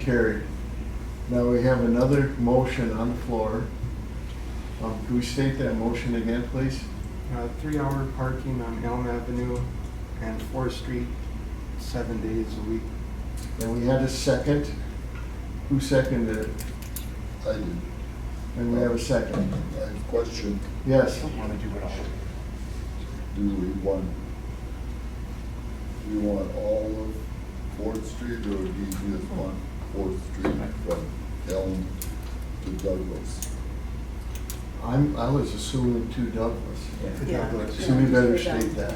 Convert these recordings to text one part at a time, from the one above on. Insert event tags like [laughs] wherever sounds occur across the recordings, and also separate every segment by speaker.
Speaker 1: carried. Now we have another motion on the floor. Um, Can we state that motion again, please?
Speaker 2: Uh, Three-hour parking on Elm Avenue and Fourth Street, seven days a week.
Speaker 1: And we had a second. Who seconded it?
Speaker 3: I did,
Speaker 1: And we have a second.
Speaker 3: I have a question,
Speaker 1: Yes.
Speaker 4: Want to do it all.
Speaker 3: do we want, do we want all of Fourth Street, or do you just want Fourth Street from Elm to Douglas?
Speaker 1: I'm, I was assuming two Douglas.
Speaker 5: Yeah.
Speaker 2: Douglas.
Speaker 1: So we better state that.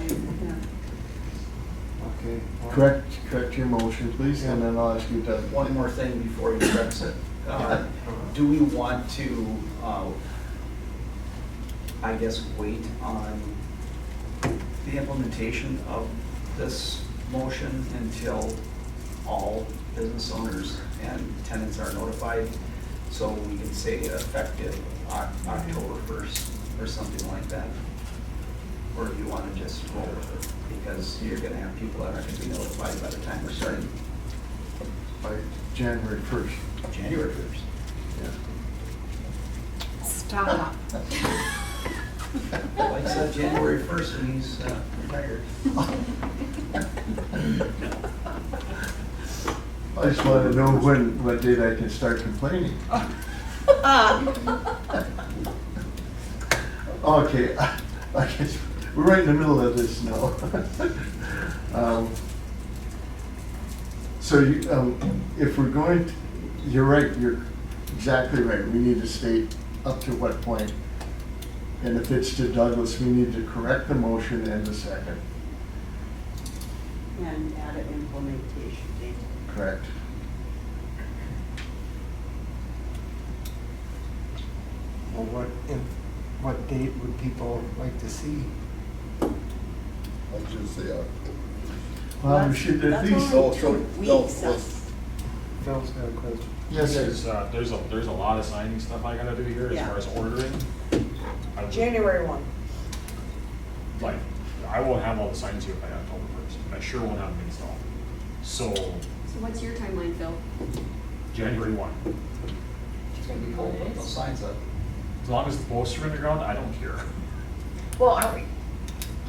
Speaker 2: Okay. well,
Speaker 1: Correct, correct your motion, please, and then I'll ask you to.
Speaker 6: One more thing before you press it. Uh, Do we want to, uh, I guess, wait on the implementation of this motion until all business owners and tenants are notified? So we can say effective Oc- October 1st or something like that? Or do you want to just roll with it? Because you're going to have people that aren't going to be notified by the time we're starting
Speaker 1: By January first.
Speaker 6: January 1st.
Speaker 5: Stop.
Speaker 6: Like said,
Speaker 7: [laughs]
Speaker 6: January first, and he's uh, retired.
Speaker 1: I just want to know when, what date I can start complaining. Okay, I guess, we're right in the middle of this now. Um, So you, um, if we're going, to- you're right, you're exactly right, we need to state up to what point. And if it's to Douglas, we need to correct the motion and the second,
Speaker 8: And add an implementation date.
Speaker 1: correct?
Speaker 2: Well, what, if- what date would people like to see?
Speaker 3: I'll just say uh, October.
Speaker 1: Well, we should at
Speaker 8: That's
Speaker 1: least,
Speaker 8: only
Speaker 3: Oh, so-
Speaker 8: two
Speaker 3: no,
Speaker 8: weeks.
Speaker 3: let's-
Speaker 2: Phil's got a question.
Speaker 1: yes, sir.
Speaker 4: There's, uh, there's a, there's a lot of signing stuff I gotta do here as
Speaker 8: Yeah.
Speaker 4: far as ordering. I would-
Speaker 8: January one.
Speaker 4: Like, I won't have all the signs here by October first, but I sure won't have them installed. So,
Speaker 7: So what's your timeline, Phil?
Speaker 4: January one,
Speaker 6: It's gonna be cold, but those signs up.
Speaker 4: as long as the posts are in the ground, I don't care.
Speaker 9: Well, are we,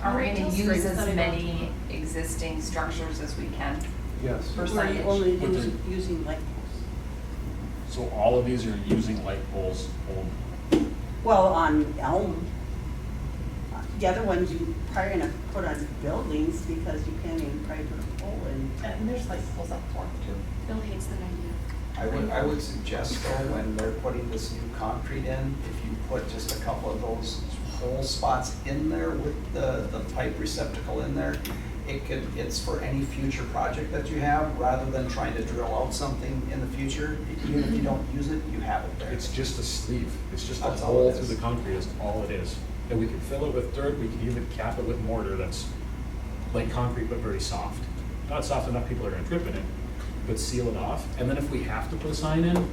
Speaker 9: are we
Speaker 7: Until
Speaker 9: gonna
Speaker 7: spring
Speaker 9: use as
Speaker 7: sunny
Speaker 9: many existing structures as we can
Speaker 2: Yes.
Speaker 9: for
Speaker 8: We're
Speaker 9: signage?
Speaker 8: only
Speaker 4: But
Speaker 8: us-
Speaker 4: then-
Speaker 8: using light poles.
Speaker 4: So all of these are using light poles only.
Speaker 8: Well, on Elm. Uh, The other ones you probably gonna put on buildings because you can't even probably put a pole in.
Speaker 9: And there's light poles up for too.
Speaker 7: Phil hates that idea.
Speaker 6: I would, I would suggest though, when they're putting this new concrete in, if you put just a couple of those hole spots in there with the, the pipe receptacle in there, it could, it's for any future project that you have, rather than trying to drill out something in the future. Even if you don't use it, you have it there.
Speaker 4: It's just a sleeve, it's just a
Speaker 6: That's all
Speaker 4: hole
Speaker 6: it is.
Speaker 4: through the concrete is all it is. And we can fill it with dirt, we can even cap it with mortar that's like concrete but very soft. Not soft enough people are gonna trip in it, but seal it off. And then if we have to put a sign in,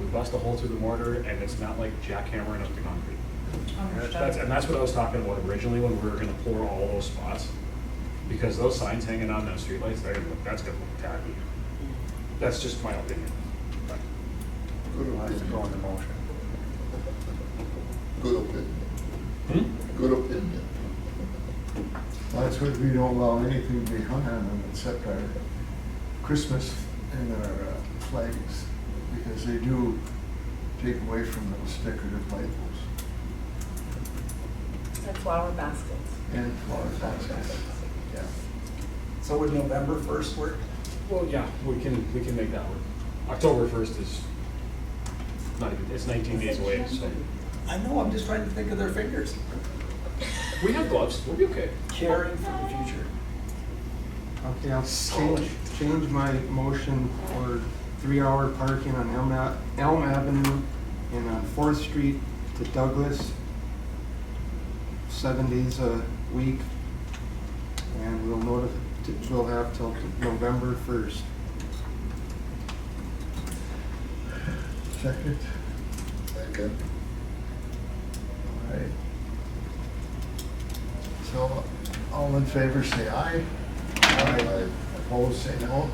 Speaker 4: we bust a hole through the mortar and it's not like jackhammering up the concrete. That's, and that's what I was talking about originally when we were gonna pour all those spots. Because those signs hanging on those streetlights, they're gonna look, that's gonna look tacky. That's just my opinion. But
Speaker 3: Good
Speaker 2: Well, that's going to
Speaker 3: opinion,
Speaker 2: motion.
Speaker 3: good opinion,
Speaker 4: Hmm?
Speaker 3: good opinion.
Speaker 1: That's why we don't allow anything to be hung on them except our Christmas and our uh, flags, because they do take away from those decorative labels
Speaker 9: And flower baskets.
Speaker 1: and flower baskets. Yeah.
Speaker 6: So would November first work?
Speaker 4: Well, yeah, we can, we can make that work. October first is not even, it's nineteen days away, so.
Speaker 6: I know, I'm just trying to think of their fingers.
Speaker 4: We have gloves, we'll be okay.
Speaker 6: Caring for the future.
Speaker 2: Okay, I'll change, change my motion for three-hour parking on Elm, A- Elm Avenue and on Fourth Street to Douglas, seven days a week. And we'll notif, we'll have till November first.
Speaker 1: Second,
Speaker 3: Second,
Speaker 1: all right. So all in favor, say aye.
Speaker 3: Aye.
Speaker 1: Opposed, say no.